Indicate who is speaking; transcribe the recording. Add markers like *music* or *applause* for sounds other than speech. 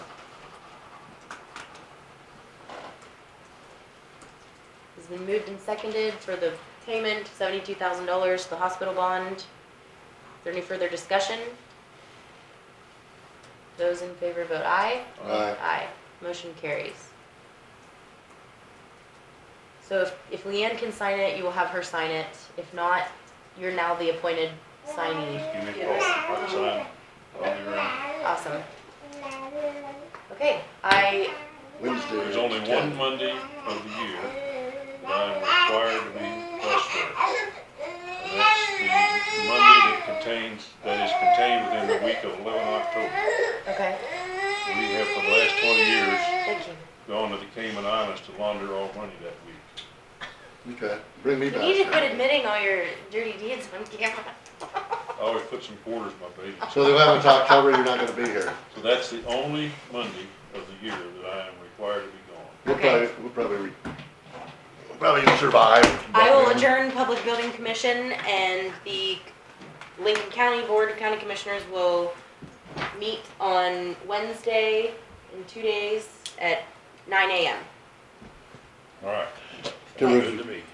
Speaker 1: been moved and seconded for the payment, seventy-two thousand dollars, the hospital bond. Is there any further discussion? Those in favor vote aye.
Speaker 2: Aye.
Speaker 1: Aye. Motion carries. So if, if Leanne can sign it, you will have her sign it. If not, you're now the appointed signee.
Speaker 3: You make
Speaker 1: Yes.
Speaker 3: all the sign. Only room.
Speaker 1: Awesome. Okay, I,
Speaker 2: Wednesday.
Speaker 3: There's only one Monday of the year that I'm required to be less than. And that's the Monday that contains, that is contained within the week of eleven October.
Speaker 1: okay,
Speaker 3: We have for the last twenty years
Speaker 1: thank you.
Speaker 3: gone to the Cayman Islands to launder all money that week.
Speaker 2: Okay, bring me back.
Speaker 1: You need to quit admitting all your dirty deeds *laughs* on camera.
Speaker 3: I always put some quarters in my baby.
Speaker 2: So the eleventh October, you're not gonna be here.
Speaker 3: So that's the only Monday of the year that I am required to be gone.
Speaker 2: We'll
Speaker 1: Okay.
Speaker 2: probably, we'll probably, re- we'll probably survive.
Speaker 1: I will
Speaker 2: but-
Speaker 1: adjourn Public Building Commission and the Lincoln County Board of County Commissioners will meet on Wednesday in two days at nine AM.
Speaker 3: All right.
Speaker 2: To
Speaker 3: Good to me.